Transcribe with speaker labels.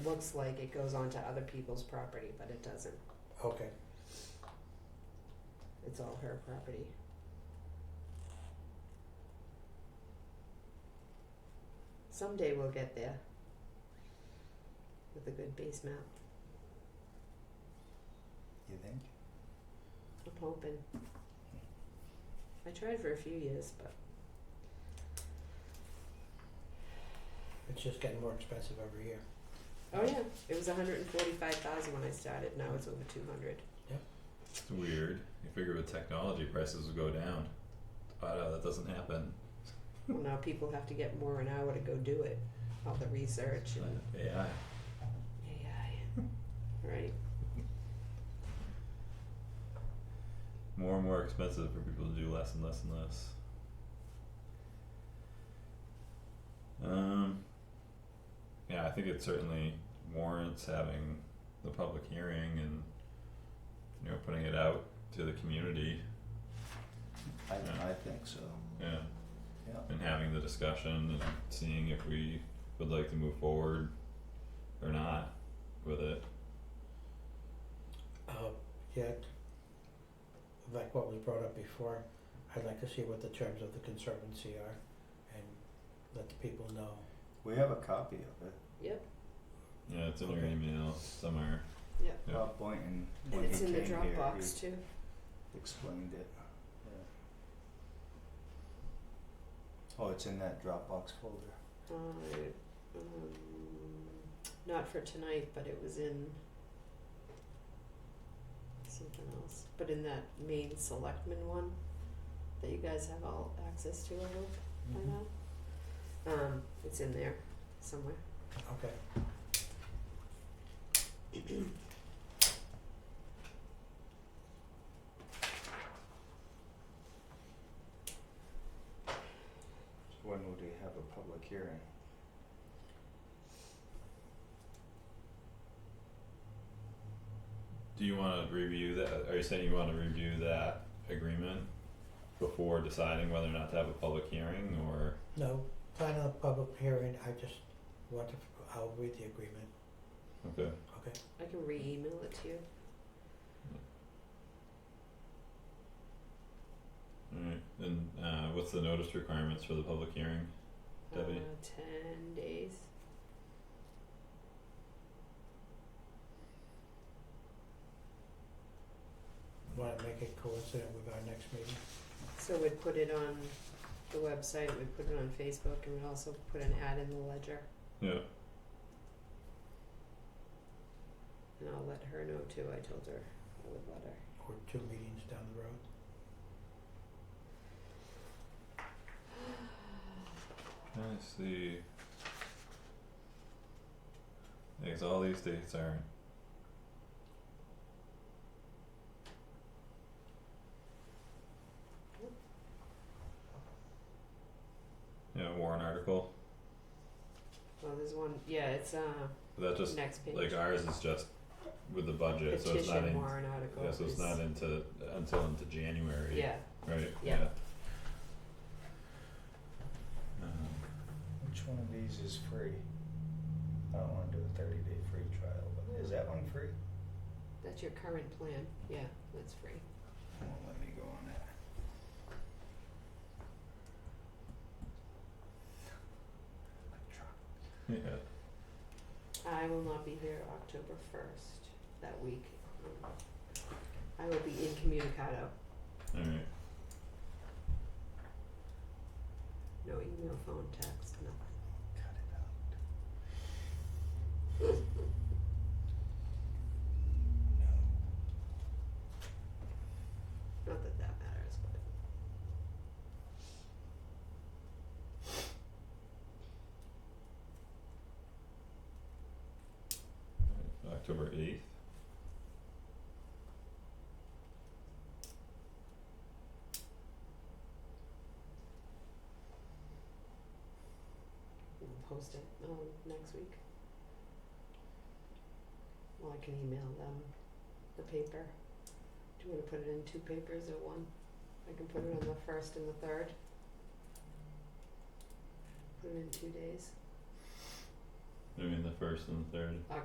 Speaker 1: looks like it goes onto other people's property, but it doesn't.
Speaker 2: Okay,
Speaker 1: It's all her property. Someday we'll get there with a good base map.
Speaker 2: you think?
Speaker 1: I'm hoping. I tried for a few years, but
Speaker 2: It's just getting more expensive every year.
Speaker 1: oh yeah, it was 145,000 when I started. Now it's over 200.
Speaker 3: It's weird. You figure with technology, prices will go down, but uh, that doesn't happen.
Speaker 1: Well, now people have to get more an hour to go do it. All the research and
Speaker 3: AI.
Speaker 1: AI, right?
Speaker 3: More and more expensive for people to do less and less and less. Um, yeah, I think it certainly warrants having the public hearing and you know putting it out to the community.
Speaker 4: I,
Speaker 3: Yeah.
Speaker 4: I think so.
Speaker 3: Yeah.
Speaker 4: Yeah.
Speaker 3: And having the discussion and seeing if we would like to move forward or not with it.
Speaker 2: Uh, yeah, like what was brought up before, I'd like to see what the terms of the conservancy are and let the people know.
Speaker 4: We have a copy of it.
Speaker 1: Yep.
Speaker 3: Yeah, it's in your
Speaker 2: Okay.
Speaker 3: email somewhere. Yeah.
Speaker 4: Bob Boynton,
Speaker 1: And
Speaker 4: when he
Speaker 1: it's in
Speaker 4: came
Speaker 1: the
Speaker 4: here,
Speaker 1: Dropbox
Speaker 4: he
Speaker 1: too.
Speaker 4: explained it. Yeah. Oh, it's in that Dropbox folder.
Speaker 1: Uh, um, not for tonight, but it was in something else. But in that main selectman one that you guys have all access to, I hope by
Speaker 4: Mm-hmm.
Speaker 1: now. Um, it's in there somewhere.
Speaker 2: Okay,
Speaker 4: So when would we have a public hearing?
Speaker 3: Do you wanna review that, are you saying you wanna review that agreement before deciding whether or not to have a public hearing or?
Speaker 2: no, plan on a public hearing, I just want to, I'll read the agreement,
Speaker 3: Okay,
Speaker 2: okay?
Speaker 1: I can re-email it to you.
Speaker 3: alright, and uh what's the notice requirements for the public hearing? Debbie?
Speaker 1: Uh, ten days.
Speaker 2: Wanna make it coincident with our next meeting?
Speaker 1: So we'd put it on the website, we'd put it on Facebook, and we'd also put an ad in the ledger.
Speaker 3: Yeah.
Speaker 1: And I'll let her know too. I told her I would let her.
Speaker 2: Or two meetings down the road?
Speaker 3: Let's see. I guess all these dates are. Yeah, warrant article,
Speaker 1: Well, there's one. Yeah, it's uh
Speaker 3: but that just,
Speaker 1: next page.
Speaker 3: like ours is just with the budget, so it's not
Speaker 1: Petition
Speaker 3: in,
Speaker 1: warrant article.
Speaker 3: yeah, so it's not
Speaker 1: is-
Speaker 3: into, until into January.
Speaker 1: Yeah,
Speaker 3: Right, yeah.
Speaker 1: Yeah.
Speaker 3: Um,
Speaker 4: Which one of these is free? I don't wanna do a thirty day free trial, but is that one free?
Speaker 1: that's your current plan. Yeah, that's free.
Speaker 4: It Won't let me go on that. I tried.
Speaker 3: yeah,
Speaker 1: I will not be here October first that week. Um, I will be incommunicado.
Speaker 3: alright,
Speaker 1: No email, phone, text, nothing.
Speaker 4: Cut it out. No.
Speaker 1: Not that that matters, but.
Speaker 3: October eighth,
Speaker 1: We'll post it um next week. Well, I can email them the paper. Do you wanna put it in two papers or one? I can put it on the first and the third. Put it in two days.
Speaker 3: I mean, the first and the third.